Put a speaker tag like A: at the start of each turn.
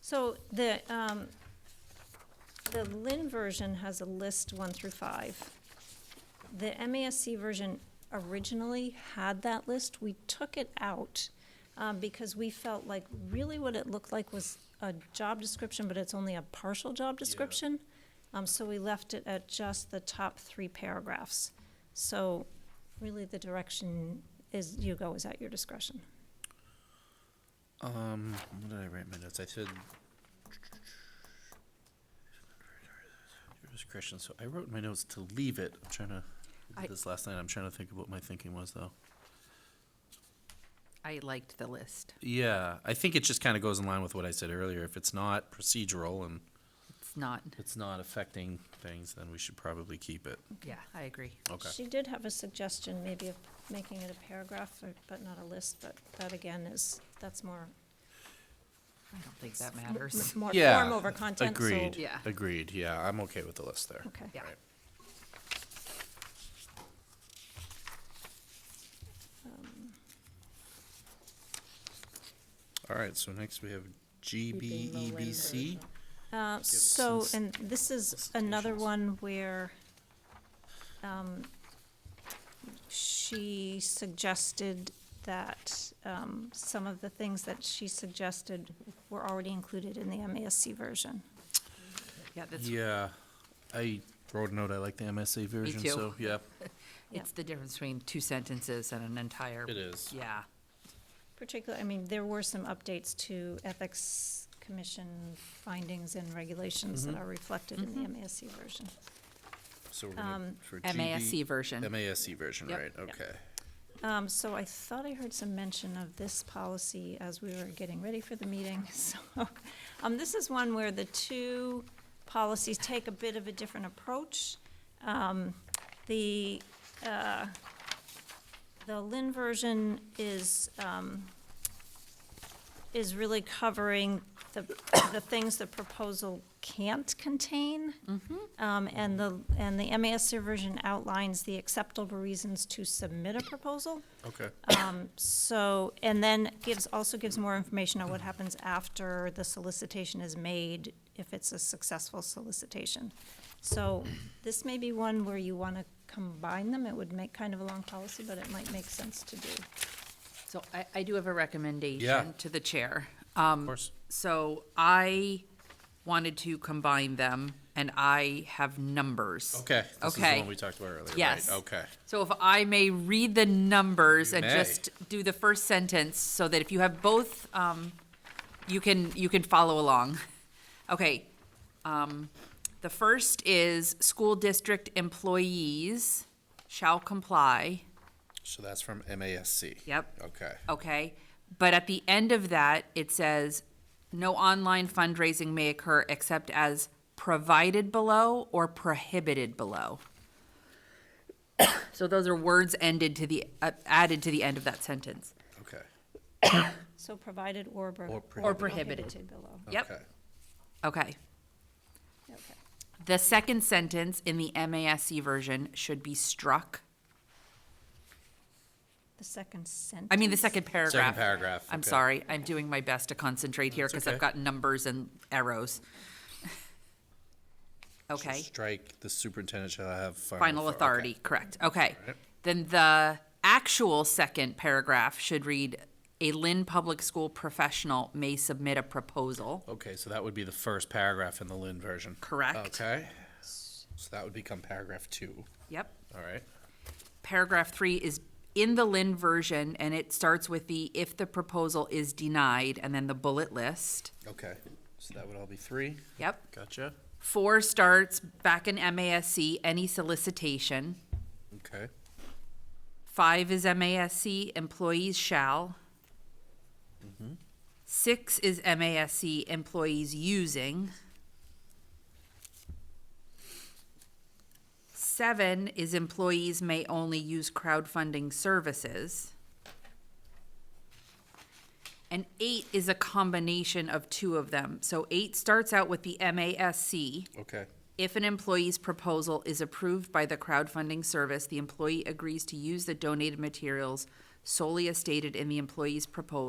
A: So the, um, the Lynn version has a list one through five. The MASC version originally had that list. We took it out um, because we felt like really what it looked like was a job description, but it's only a partial job description. Um, so we left it at just the top three paragraphs. So really the direction is, you go is at your discretion.
B: Um, what did I write in my notes? I said. Christian, so I wrote in my notes to leave it. I'm trying to, I
C: I-
B: did this last night, I'm trying to think of what my thinking was though.
C: I liked the list.
B: Yeah, I think it just kind of goes in line with what I said earlier. If it's not procedural and
C: It's not,
B: it's not affecting things, then we should probably keep it.
C: yeah, I agree.
B: Okay.
A: She did have a suggestion, maybe of making it a paragraph, or- but not a list, but that again is, that's more,
C: I don't think that
A: m-
C: matters.
A: more
B: Yeah,
A: form over content, so.
B: Agreed.
C: Yeah.
B: Agreed. Yeah, I'm okay with the list there.
A: Okay.
C: Yeah.
B: Right. All right, so next we have E GBEBC.
A: Uh, so, and this is another
B: solicitations.
A: one where, um, she suggested that, um, some of the things that she suggested were already included in the MASC version.
C: Yeah, that's,
B: Yeah, I wrote a note, I like the MSA version,
C: too.
B: so, yeah,
C: it's the difference between two sentences and an entire.
B: it is.
C: Yeah,
A: Particularly, I mean, there were some updates to Ethics Commission findings and regulations that are reflected in the MASC version.
B: So we're gonna,
C: Um,
B: for GB
C: MASC version.
B: MASC version,
C: Yep.
B: right, okay.
A: Um, so I thought I heard some mention of this policy as we were getting ready for the meeting, so. Um, this is one where the two policies take a bit of a different approach. Um, the, uh, the Lynn version is, um, is really covering the, the things the proposal can't contain. Um, and the, and the MASC version outlines the acceptable reasons to submit a proposal.
B: Okay,
A: Um, so, and then gives, also gives more information on what happens after the solicitation is made, if it's a successful solicitation. So this may be one where you want to combine them. It would make kind of a long policy, but it might make sense to do.
C: So I, I do have a recommendation to the chair. Um,
B: of course.
C: So I wanted to combine them, and I have numbers.
B: Okay, this is the
C: Okay.
B: one we talked about earlier, right,
C: Yes.
B: okay.
C: So if I may read the numbers
B: You
C: and
B: may.
C: just do the first sentence, so that if you have both, um, you can, you can follow along. Okay. Um, the first is school district employees shall comply,
B: So that's from MASC.
C: Yep.
B: Okay,
C: okay? But at the end of that, it says, no online fundraising may occur except as provided below or prohibited below. So those are words ended to the, uh, added to the end of that sentence.
B: okay,
A: So provided or. pro-
B: Or prohibited. Or
C: prohibited.
A: below.
C: Yep,
B: okay.
C: okay.
A: Okay.
C: The second sentence in the MASC version should be struck.
A: The second sentence.
C: I mean, the second paragraph.
B: paragraph,
C: I'm
B: okay.
C: sorry, I'm doing my best to concentrate here because
B: okay.
C: I've got numbers and arrows.
B: So
C: Okay.
B: Strike, the superintendent shall have final. author-
C: Final
B: okay. Mm-hmm.
C: authority, correct, okay. Then the actual second paragraph should read, "A Lynn Public School professional may submit a proposal."
B: Okay, so that would be the first paragraph in the Lynn version.
C: Correct.
B: Okay, so that would become paragraph two,
C: Yep.
B: all right?
C: Paragraph three is in the Lynn version, and it starts with the "if the proposal is denied," and then the bullet list.
B: Okay, so that would all be three,
C: Yep.
B: gotcha,
C: Four starts back in MASC, any solicitation.
B: okay,
C: Five is MASC, employees shall. Six is MASC, employees using. Seven is employees may only use crowdfunding services. And eight is a combination of two of them. So eight starts out with the MASC.
B: okay.
C: If an employee's proposal is approved by the crowdfunding service, the employee agrees to use the donated materials solely as stated in the employee's proposal